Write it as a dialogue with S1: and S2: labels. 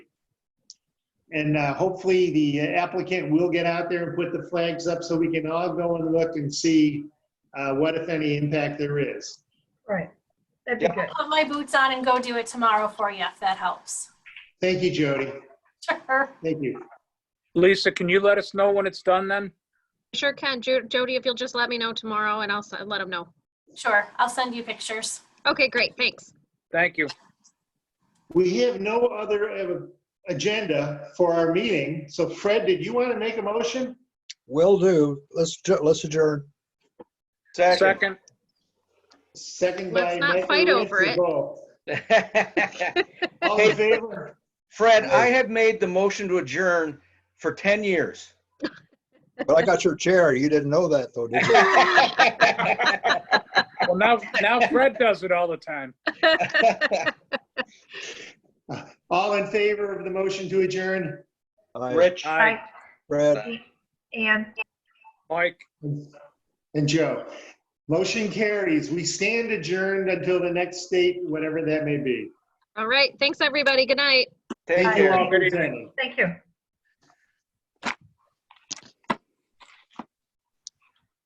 S1: And uh, hopefully, the applicant will get out there and put the flags up so we can all go and look and see uh, what, if any, impact there is.
S2: Right. That'd be good.
S3: Put my boots on and go do it tomorrow for you, if that helps.
S1: Thank you, Jody.
S3: Sure.
S1: Thank you.
S4: Lisa, can you let us know when it's done then?
S5: Sure can. Ju- Jody, if you'll just let me know tomorrow and I'll s- let them know.
S3: Sure, I'll send you pictures.
S5: Okay, great. Thanks.
S4: Thank you.
S1: We have no other uh, agenda for our meeting. So Fred, did you want to make a motion?
S6: Will do. Let's, ju- let's adjourn.
S4: Second,
S1: Second by.
S5: Let's not
S1: Michael
S5: fight over
S1: Lancey
S5: it.
S1: Ball.
S7: Fred,
S1: All in favor?
S7: I have made the motion to adjourn for 10 years.
S6: But I got your chair. You didn't know that though, did you?
S4: well, now, now Fred does it all the time.
S1: All in favor of the motion to adjourn?
S6: Hi,
S7: Rich,
S4: Aye,
S6: Brad,
S2: And
S4: Mike,
S1: And Joe? Motion carries. We stand adjourned until the next date, whatever that may be.
S5: All right. Thanks, everybody. Good night.
S7: take
S1: Thank you
S7: care.
S1: all for attending.
S2: thank you.